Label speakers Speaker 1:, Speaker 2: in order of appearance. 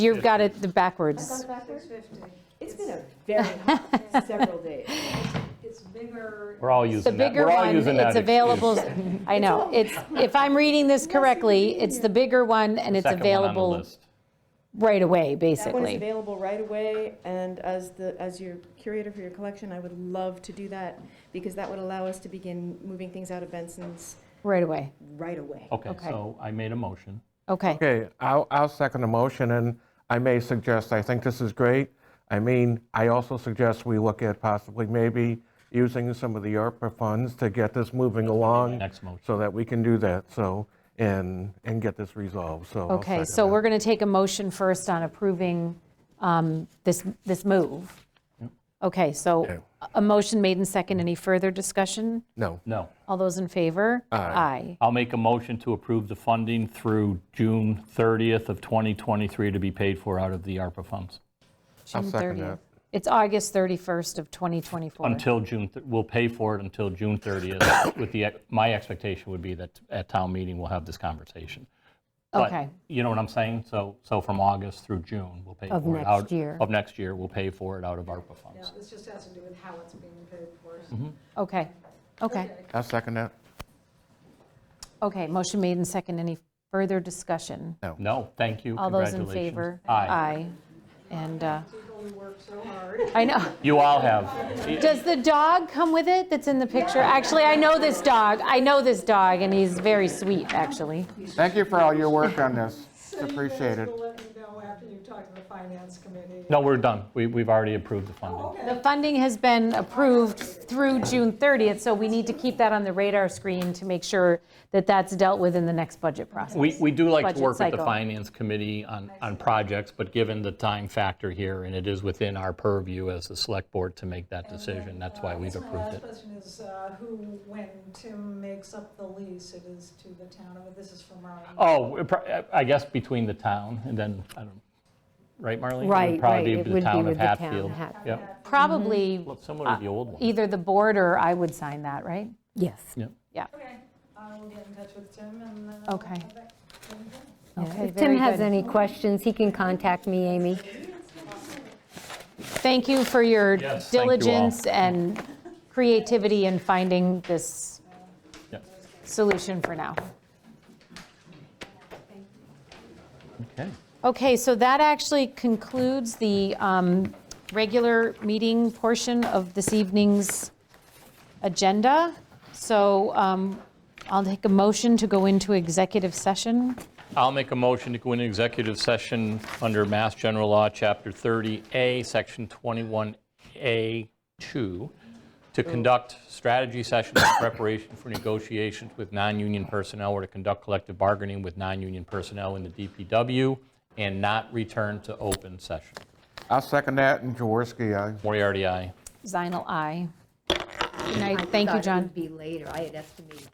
Speaker 1: You've got it the backwards.
Speaker 2: Six fifty.
Speaker 3: It's been a very hot several days.
Speaker 2: It's bigger.
Speaker 4: We're all
Speaker 1: It's the
Speaker 4: using that.
Speaker 1: bigger
Speaker 4: We're all
Speaker 1: one,
Speaker 4: using that
Speaker 1: it's
Speaker 4: excuse.
Speaker 1: available, I know, it's, if I'm reading this correctly, it's the bigger one and it's
Speaker 4: Second one on the
Speaker 1: available
Speaker 4: list.
Speaker 1: right away,
Speaker 3: That one is
Speaker 1: basically.
Speaker 3: available right away, and as the, as your curator for your collection, I would love to do that, because that would allow us to begin moving things out of Benson's
Speaker 1: Right away,
Speaker 3: right away.
Speaker 4: Okay,
Speaker 1: Okay.
Speaker 4: so I made a motion.
Speaker 1: okay.
Speaker 5: Okay, I'll, I'll second the motion, and I may suggest, I think this is great. I mean, I also suggest we look at possibly maybe using some of the ARPA funds to get this moving along.
Speaker 4: next motion.
Speaker 5: So that we can do that, so, and, and get this resolved, so. I'll
Speaker 1: Okay,
Speaker 5: second
Speaker 1: so
Speaker 5: that.
Speaker 1: we're going to take a motion first on approving um, this, this move. Okay, so
Speaker 5: Okay.
Speaker 1: a- a motion made and second. Any further discussion?
Speaker 5: No,
Speaker 4: No,
Speaker 1: All those in favor? Aye.
Speaker 4: I'll make a motion to approve the funding through June 30th of 2023 to be paid for out of the ARPA funds.
Speaker 5: I'll
Speaker 1: June
Speaker 5: second
Speaker 1: 30th.
Speaker 5: that.
Speaker 1: It's August 31st of 2024.
Speaker 4: Until June, th- we'll pay for it until June 30th, with the, ex- my expectation would be that at town meeting, we'll have this conversation. But
Speaker 1: Okay.
Speaker 4: You know what I'm saying? So, so from August through June, we'll pay for it.
Speaker 1: Of next
Speaker 4: out-
Speaker 1: year.
Speaker 4: Of next year, we'll pay for it out of ARPA
Speaker 2: Yeah,
Speaker 4: funds.
Speaker 2: this just has to do with how it's being paid for.
Speaker 1: Okay, okay,
Speaker 5: I'll second that.
Speaker 1: okay. Motion made and second. Any further discussion?
Speaker 4: No, thank you,
Speaker 1: All those in
Speaker 4: Uh, congratulations.
Speaker 1: favor?
Speaker 4: Aye.
Speaker 1: And, uh,
Speaker 2: We've only worked so hard.
Speaker 1: I know.
Speaker 4: You all have.
Speaker 1: Does the dog come with it that's in the picture? Actually, I know this dog. I know this dog, and he's very sweet, actually.
Speaker 5: Thank you for all your work on this, it's
Speaker 2: So you guys
Speaker 5: appreciated.
Speaker 2: will let me know after you talk to the finance committee.
Speaker 4: No, we're done. We- We've already approved the funding.
Speaker 1: The funding has been approved through June 30th, so we need to keep that on the radar screen to make sure that that's dealt with in the next budget process.
Speaker 4: We, we do like
Speaker 1: Budget
Speaker 4: to work with the
Speaker 1: cycle.
Speaker 4: Finance Committee on, on projects, but given the time factor here, and it is within our purview as the Select Board to make that decision, that's why we've
Speaker 2: My
Speaker 4: approved
Speaker 2: last
Speaker 4: it.
Speaker 2: question is, uh, who, when Tim makes up the lease, it is to the town, of- this is from our.
Speaker 4: Oh, it pro- I guess between the town and then, I don't, right, Marlene? It would
Speaker 6: Right, right,
Speaker 4: probably
Speaker 6: it
Speaker 4: be the
Speaker 6: would be
Speaker 4: town of
Speaker 6: with the town.
Speaker 4: Hatfield.
Speaker 6: Hat-
Speaker 4: Yep,
Speaker 1: Probably
Speaker 4: Well, similar to the old one.
Speaker 1: either the board or I would sign that, right?
Speaker 6: Yes.
Speaker 4: Yeah.
Speaker 1: Yeah,
Speaker 2: Okay, I will get in touch with Tim and. uh,
Speaker 1: Okay.
Speaker 2: I'll back-
Speaker 1: okay,
Speaker 6: If Tim
Speaker 1: very
Speaker 6: has
Speaker 1: good.
Speaker 6: any questions, he can contact me, Amy.
Speaker 1: Thank you for your
Speaker 4: Yes, thank you all.
Speaker 1: diligence and creativity in finding this
Speaker 4: yeah.
Speaker 1: solution for now.
Speaker 4: Okay,
Speaker 1: Okay, so that actually concludes the um, regular meeting portion of this evening's agenda. So um, I'll take a motion to go into executive session.
Speaker 4: I'll make a motion to go into executive session under Mass General Law, Chapter 30A, Section 21A2, to conduct strategy sessions in preparation for negotiations with non-union personnel or to conduct collective bargaining with non-union personnel in the DPW and not return to open session.
Speaker 5: I'll second that, and Jaworski, aye.
Speaker 4: Moriarty, aye.
Speaker 1: Zinal, aye. Good night. Thank you, John.
Speaker 6: be later. I had estimated